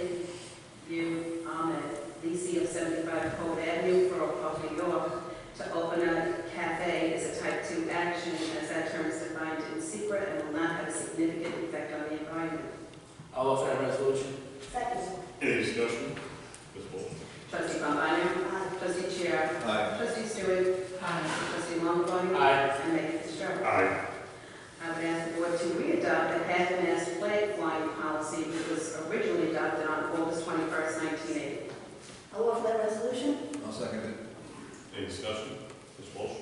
um, Trustee Pambana? discussion? Ms. Bolton? Trustee Chair. Aye. Trustee Stewart. Trustee Longbody. Aye. And Mayor Fitzgerald. Aye. I would ask the board to re-adopt the half-mast flag flying policy which was originally adopted on August 21st, 1980. I'll offer that resolution. I'll second it. Any discussion? Ms. Bolton?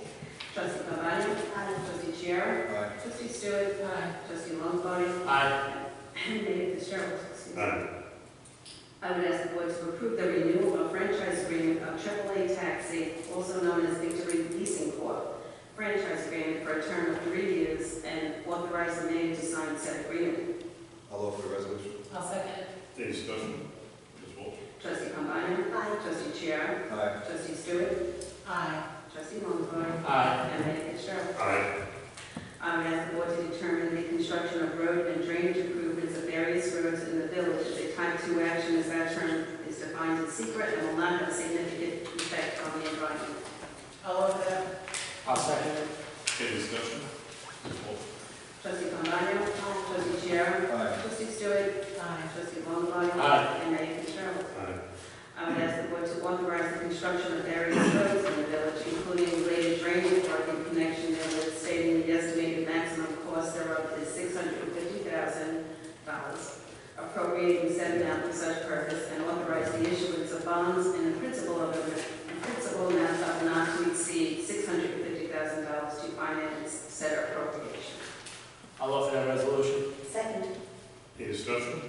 Trustee Pambana? Trustee Chair. Aye. Trustee Stewart. Trustee Longbody. Aye. And Mayor Fitzgerald. excuse me. Aye. I would ask the board to approve the renewal of franchise agreement of AAA Taxi, also known as Victory Leasing Corp. Franchise agreement for a term of three years and authorize the mayor to sign said agreement. I'll offer the resolution. I'll second. Any discussion? Ms. Bolton? Trustee Combiner? Aye. Trustee Chair? Aye. Trustee Stewart? Aye. Trustee Longoboy? Aye. And Mayor Fitzgerald. Aye. I would Um, ask the board to determine the construction of road and drainage improvements of various roads in the village. The type two action is that term is defined in secret and will not have a significant effect on the environment. I'll offer that. I'll second. Any discussion? Ms. Bolton? Trustee Cambani, trustee Chair, Aye. trustee Stewart, Aye. trustee Longbody, Aye. and Mayor Fitzgerald. Aye. I would ask Um, the board to authorize the construction of various roads in the village, including related drainage work in connection therewith, stating the estimated maximum cost thereof is six hundred and fifty thousand dollars, appropriating said amount for such purpose, and authorize the issuance of bonds in the principal of, in principal amount of not to exceed six hundred and fifty thousand dollars to finance said appropriation. I'll offer that resolution. Second. Any discussion?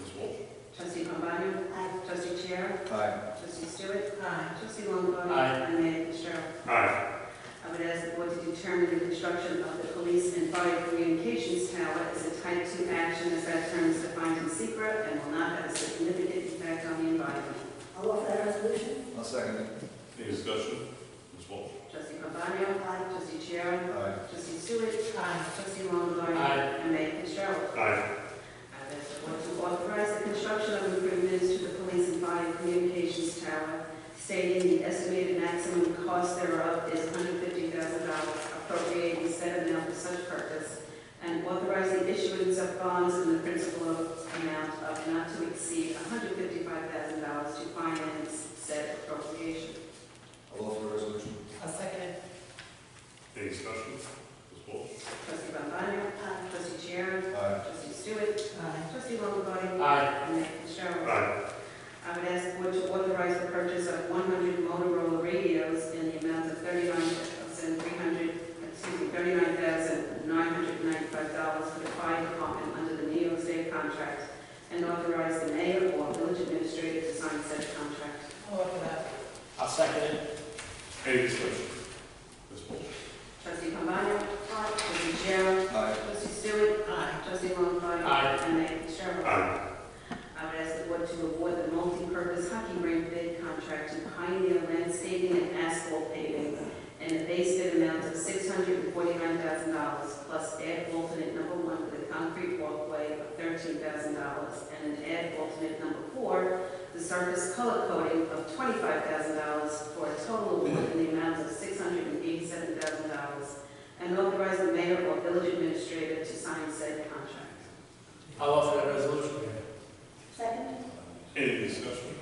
Ms. Bolton? Trustee Cambani? Aye. Trustee Chair? Aye. Trustee Stewart? Aye. Trustee Longbody? Aye. And Mayor Fitzgerald. Aye. I would ask the board to determine the construction of the police and fire communications tower as a type two action as that term is defined in secret and will not have a significant effect on the environment. I'll offer that resolution. I'll second it. Any discussion? Ms. Bolton? Trustee Cambani? Aye. Trustee Chair? Aye. Trustee Stewart? Aye. Trustee Longbody? Aye. And Mayor Fitzgerald. Aye. I therefore to authorize the construction of improvements to the police and fire communications tower, stating the estimated maximum cost thereof is $150,000, appropriating said amount for such purpose, and authorize the issuance of bonds in the principal amount of not to exceed $155,000 to finance said appropriation. I'll offer the resolution. I'll second. Any discussion? Ms. Bolton? Trustee Pambana? Trustee Chair? Aye. Trustee Stewart? Aye. Trustee Longbody? Aye. And Mayor Fitzgerald. Aye. I would ask the board to authorize the purchase of 100 Motorola radios in the amount of $39,300, excuse me, $39,995 for the fire department under the New York State contract, and authorize the mayor or village administrator to sign said contract. I'll offer that. I'll second it. Any discussion? Ms. Bolton? Trustee Pambana? Trustee Chair? Aye. Trustee Stewart? Aye. Trustee Longbody? Aye. And Mayor Fitzgerald? Aye. I would ask the board to award the multi-purpose hockey rink bid contract to Pioneer Landscaping and Asphalt Paving in a base bid amount of six hundred and forty-nine thousand dollars, plus add alternate number one for the concrete walkway of thirteen thousand dollars, and an add alternate number four, the surface color coding of twenty-five thousand dollars, for a total award in the amount of six hundred and eighty-seven thousand dollars, and authorize the mayor or village administrator to sign said contract. I'll offer that resolution. Second. Any discussion?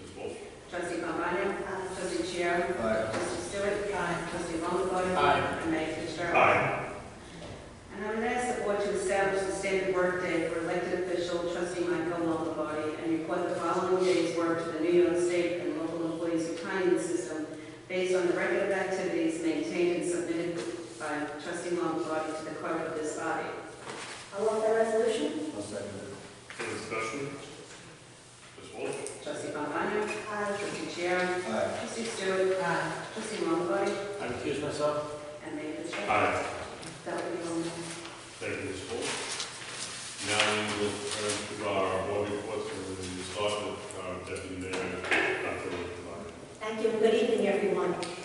Ms. Bolton? Trustee Pambana? Aye. Trustee Chair? Aye. Trustee Stewart? Aye. Trustee Longbody? Aye. And Mayor Fitzgerald? Aye. And I would ask the board to establish the standard workday for elected official trustee Michael Longbody and report the following day's work to the New York State and local employees retirement system based on the record of activities maintained and submitted by trustee Longbody to the clerk of this body. I'll offer that resolution. I'll second it. Any discussion? Ms. Bolton? Trustee Pambana? Aye. Trustee Chair? Aye. Trustee Stewart? Aye. Trustee Longbody? I recuse myself. And Mayor Fitzgerald? Aye. That would be all. Thank you, Ms. Wolf. Now we will turn to our board reports, and we will start with our deputy uh, mayor, Dr. Luther. Thank you, and good evening, everyone. Uh,